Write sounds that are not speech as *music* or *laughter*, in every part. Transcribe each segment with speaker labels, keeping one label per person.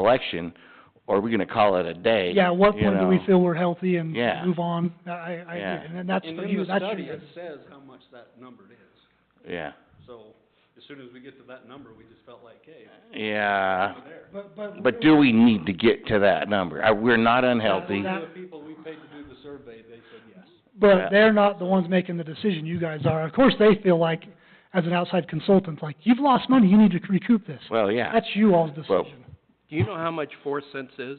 Speaker 1: collection, or are we gonna call it a day?
Speaker 2: Yeah, at what
Speaker 1: you
Speaker 2: point do we
Speaker 1: know?
Speaker 2: feel we're healthy and
Speaker 1: Yeah.
Speaker 2: move on? I, I, I
Speaker 1: Yeah.
Speaker 2: agree, and that's
Speaker 3: And
Speaker 2: for
Speaker 3: in
Speaker 2: you,
Speaker 3: the
Speaker 2: that's your.
Speaker 3: study, it says how much that number is.
Speaker 1: Yeah,
Speaker 3: So as soon as we get to that number, we just felt like, hey,
Speaker 1: yeah,
Speaker 3: we're there.
Speaker 2: But, but.
Speaker 1: but do we need to get to that number? I, we're not unhealthy,
Speaker 2: That-
Speaker 3: The people we paid to do the survey, they said yes.
Speaker 1: Yeah.
Speaker 2: But they're not the ones making the decision, you guys are. Of course, they feel like, as an outside consultant, like, you've lost money, you need to recoup this.
Speaker 1: well, yeah,
Speaker 2: That's you all's
Speaker 1: Well-
Speaker 2: decision.
Speaker 4: Do you know how much four cents is,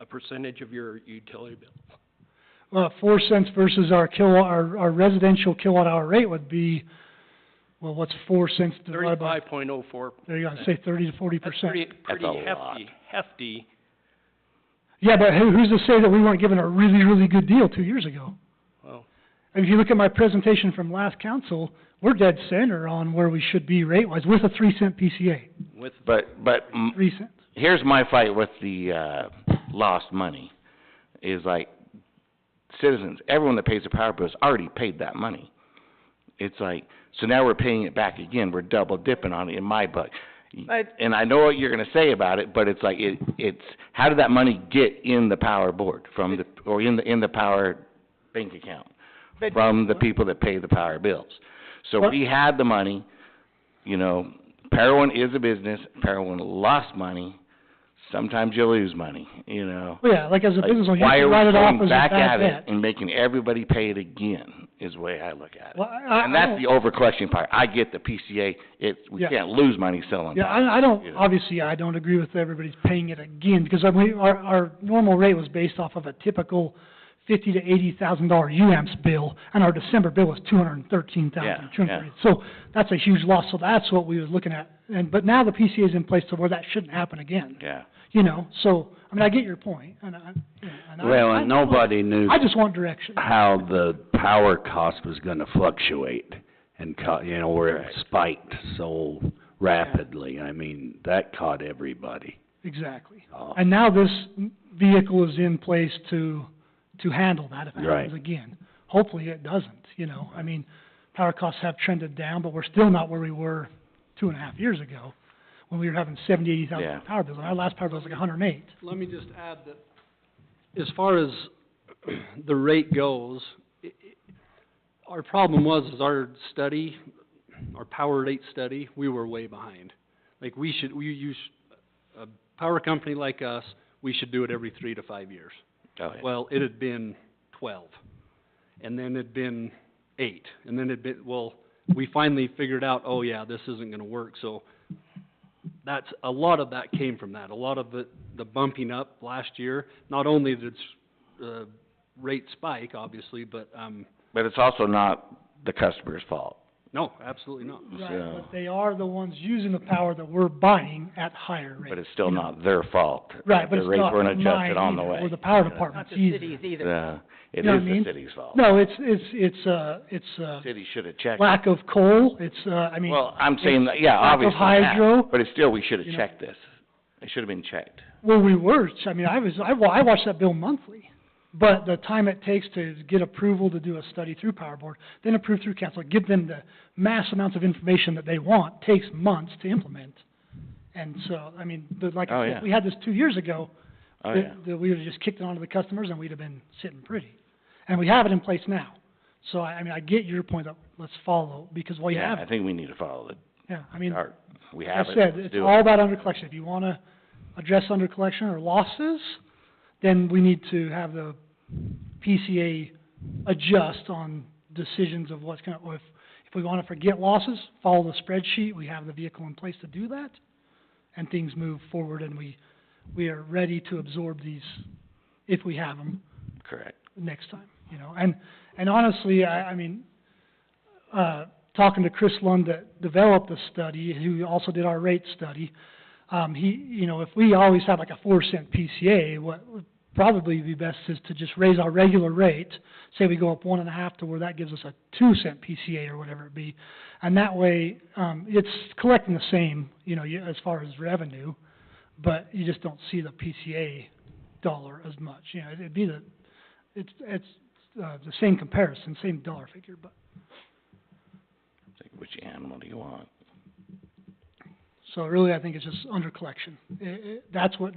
Speaker 4: a percentage of your utility bill?
Speaker 2: Uh, four cents versus our kilowatt, our, our residential kilowatt hour rate would be, well, what's four cents divided by?
Speaker 4: Thirty-five point oh four.
Speaker 2: There you go, say thirty to forty
Speaker 4: That's
Speaker 2: percent.
Speaker 4: pretty, pretty
Speaker 1: a lot.
Speaker 4: hefty, hefty.
Speaker 2: Yeah, but who, who's to say that we weren't given a really, really good deal two years ago?
Speaker 4: Well,
Speaker 2: If you look at my presentation from last council, we're dead center on where we should be rate-wise, with a three cent PCA,
Speaker 4: with,
Speaker 1: but, but m-
Speaker 2: three cents.
Speaker 1: here's my fight with the, uh, lost money, is like, citizens, everyone that pays the power bill has already paid that money. It's like, so now we're paying it back again, we're double dipping on it in my book.
Speaker 5: But-
Speaker 1: And I know what you're gonna say about it, but it's like, it, it's, how did that money get in the power board from the, or in the, in the power bank account?
Speaker 5: But-
Speaker 1: From the people that pay the power bills. So
Speaker 2: Well-
Speaker 1: we had the money, you know, Parowan is a business, Parowan lost money, sometimes you lose money, you know?
Speaker 2: Well, yeah, like as a
Speaker 1: Like,
Speaker 2: business owner, you can write it
Speaker 1: Why are
Speaker 2: off
Speaker 1: we going
Speaker 2: as a
Speaker 1: back at
Speaker 2: bad
Speaker 1: it
Speaker 2: debt.
Speaker 1: and making everybody pay it again, is the way I look at it.
Speaker 2: Well, I- I-
Speaker 1: And
Speaker 2: I
Speaker 1: that's
Speaker 2: don't-
Speaker 1: the overcollection part. I get the PCA, it, we
Speaker 2: Yeah.
Speaker 1: can't lose money selling
Speaker 2: Yeah,
Speaker 1: that.
Speaker 2: I, I
Speaker 1: you
Speaker 2: don't,
Speaker 1: know.
Speaker 2: obviously, I don't agree with everybody's paying it again, because I, we, our, our normal rate was based off of a typical fifty to eighty thousand dollar UAMPS bill, and our December bill was two hundred and thirteen thousand,
Speaker 1: Yeah,
Speaker 2: two hundred and thirty. So that's a huge loss, so that's what we was looking at, and, but now the PCA is in place to where that shouldn't happen again,
Speaker 1: Yeah.
Speaker 2: you know, so, I mean, I get your point, and I, you know, and I.
Speaker 6: Well,
Speaker 2: I-
Speaker 6: and nobody knew
Speaker 2: I just want direction.
Speaker 6: how the power cost was gonna fluctuate and co- you know, where it spiked so rapidly. I mean, that caught everybody.
Speaker 2: Exactly.
Speaker 6: Oh.
Speaker 2: And now this vehicle is in place to, to handle that if it
Speaker 6: Right.
Speaker 2: happens again. Hopefully it doesn't, you know, I mean, power costs have trended down, but we're still not where we were two and a half years ago, when we were having seventy, eighty thousand
Speaker 1: Yeah.
Speaker 2: dollar power bills, and our last power bill was like a hundred and eight.
Speaker 3: Let me just add that as far as *clears throat* the rate goes, i- i- our problem was, is our study, our power rate study, we were way behind. Like, we should, we use, a power company like us, we should do it every three to five years.
Speaker 1: Oh, yeah.
Speaker 3: Well, it had been twelve, and then it'd been eight, and then it'd been, well, we finally figured out, oh yeah, this isn't gonna work, so that's, a lot of that came from that, a lot of the, the bumping up last year, not only did, s- uh, rate spike, obviously, but, um,
Speaker 1: But it's also not the customer's fault.
Speaker 3: no, absolutely not.
Speaker 1: So-
Speaker 2: Right, but they are the ones using the power that we're buying at higher rates.
Speaker 1: But it's still not their fault.
Speaker 2: Right, but it's
Speaker 1: The rates
Speaker 2: not
Speaker 1: weren't
Speaker 2: mine
Speaker 1: adjusted on the
Speaker 2: either,
Speaker 1: way.
Speaker 2: or the power
Speaker 1: you know.
Speaker 2: department's
Speaker 5: the
Speaker 2: either.
Speaker 5: cities either.
Speaker 1: Yeah, it
Speaker 2: You know
Speaker 1: is
Speaker 2: what I
Speaker 1: the
Speaker 2: mean?
Speaker 1: city's fault.
Speaker 2: No, it's, it's, it's, uh, it's, uh,
Speaker 1: City should have checked.
Speaker 2: lack of coal, it's, uh, I mean.
Speaker 1: Well, I'm saying, that- yeah,
Speaker 2: lack of
Speaker 1: obviously that,
Speaker 2: hydro,
Speaker 1: But it's still, we should have
Speaker 2: you know.
Speaker 1: checked this. It should have been checked.
Speaker 2: Well, we were, I mean, I was, I wa- I watched that bill monthly, but the time it takes to get approval to do a study through Power Board, then approve through council, give them the mass amounts of information that they want, takes months to implement. And so, I mean, but like
Speaker 1: Oh,
Speaker 2: I
Speaker 1: yeah.
Speaker 2: said, we had this two years ago,
Speaker 1: Oh,
Speaker 2: that-
Speaker 1: yeah.
Speaker 2: that we would've just kicked it onto the customers and we'd have been sitting pretty. And we have it in place now, so I, I mean, I get your point that let's follow, because while you
Speaker 1: Yeah,
Speaker 2: have
Speaker 1: I
Speaker 2: it,
Speaker 1: think we need to follow the
Speaker 2: yeah, I mean,
Speaker 1: chart. We
Speaker 2: like
Speaker 1: have
Speaker 2: I
Speaker 1: it,
Speaker 2: said,
Speaker 1: let's
Speaker 2: it's
Speaker 1: do it.
Speaker 2: all about under collection. If you wanna address under collection or losses, then we need to have the PCA adjust on decisions of what's gonna, or if, if we wanna forget losses, follow the spreadsheet, we have the vehicle in place to do that, and things move forward and we, we are ready to absorb these, if we have them,
Speaker 1: Correct.
Speaker 2: next time, you know, and, and honestly, I, I mean, uh, talking to Chris Lund that developed the study, who also did our rate study, um, he, you know, if we always had like a four cent PCA, what would probably be best is to just raise our regular rate, say we go up one and a half to where that gives us a two cent PCA or whatever it be, and that way, um, it's collecting the same, you know, you- as far as revenue, but you just don't see the PCA dollar as much, you know, it'd be the, it's, it's, uh, the same comparison, same dollar figure, but,
Speaker 1: Like, Which animal do you want?
Speaker 2: so really, I think it's just under collection. I- I- that's what